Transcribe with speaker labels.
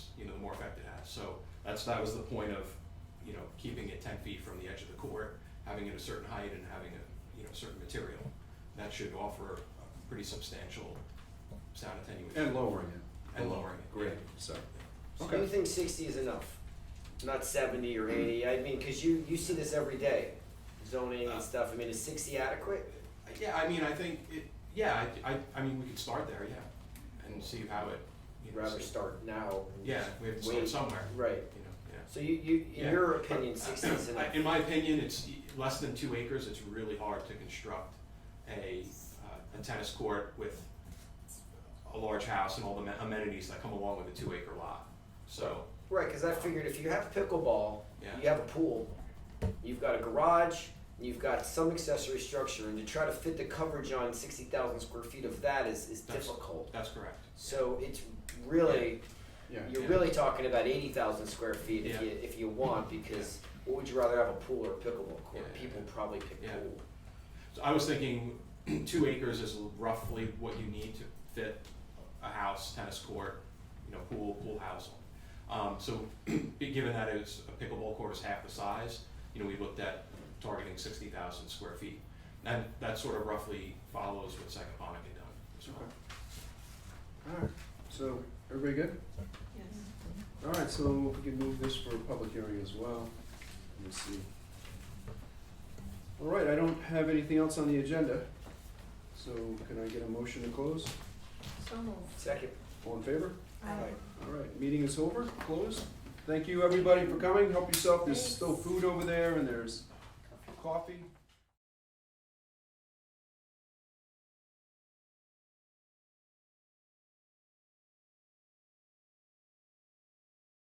Speaker 1: So that's, that was the point of, you know, keeping it ten feet from the edge of the court, having it a certain height and having a, you know, certain material. That should offer a pretty substantial sound attenuation.
Speaker 2: And lowering it.
Speaker 1: And lowering it,
Speaker 2: Great,
Speaker 1: yeah.
Speaker 2: so,
Speaker 3: So
Speaker 2: okay.
Speaker 3: you think sixty is enough, not seventy or eighty? I mean, because you you see this every day, zoning
Speaker 1: Uh,
Speaker 3: and stuff. I mean, is sixty adequate?
Speaker 1: Yeah, I mean, I think it, yeah, I, I, I mean, we could start there, yeah, and see how it, you
Speaker 3: You'd
Speaker 1: know,
Speaker 3: rather
Speaker 1: see-
Speaker 3: start now. and
Speaker 1: yeah,
Speaker 3: just
Speaker 1: we have to start
Speaker 3: wait.
Speaker 1: somewhere,
Speaker 3: Right.
Speaker 1: you know, yeah.
Speaker 3: So you you in
Speaker 1: Yeah.
Speaker 3: your opinion, sixty is
Speaker 1: I-
Speaker 3: enough.
Speaker 1: In my opinion, it's less than two acres, it's really hard to construct a, uh, a tennis court with a large house and all the amen- amenities that come along with a two acre lot, so,
Speaker 3: Right, because I figured if you have pickleball,
Speaker 1: Yeah.
Speaker 3: you have a pool, you've got a garage, and you've got some accessory structure, and to try to fit the coverage on sixty thousand square feet of that is is
Speaker 1: That's-
Speaker 3: difficult.
Speaker 1: that's correct.
Speaker 3: So it's really.
Speaker 2: yeah.
Speaker 3: You're
Speaker 1: Yeah.
Speaker 3: really talking about eighty thousand square feet if
Speaker 1: Yeah.
Speaker 3: you, if you want, because what would you rather have, a pool or a pickleball
Speaker 1: Yeah,
Speaker 3: court?
Speaker 1: yeah,
Speaker 3: People
Speaker 1: yeah.
Speaker 3: probably pick
Speaker 1: Yeah.
Speaker 3: pool.
Speaker 1: So I was thinking two acres is roughly what you need to fit a house, tennis court, you know, pool, pool house. Um, so given that it's a pickleball court is half the size, you know, we looked at targeting sixty thousand square feet. And that sort of roughly follows what Sagaponic had done as well.
Speaker 2: Okay. Alright, so, everybody good?
Speaker 4: Yes.
Speaker 2: Alright, so if we can move this for a public hearing as well, let me see. Alright, I don't have anything else on the agenda, so can I get a motion to close?
Speaker 4: So moved.
Speaker 3: Second.
Speaker 2: All in favor?
Speaker 3: Aye.
Speaker 2: Alright, meeting is over, closed. Thank you, everybody, for coming, help yourself, there's
Speaker 4: Thanks.
Speaker 2: still food over there and there's coffee.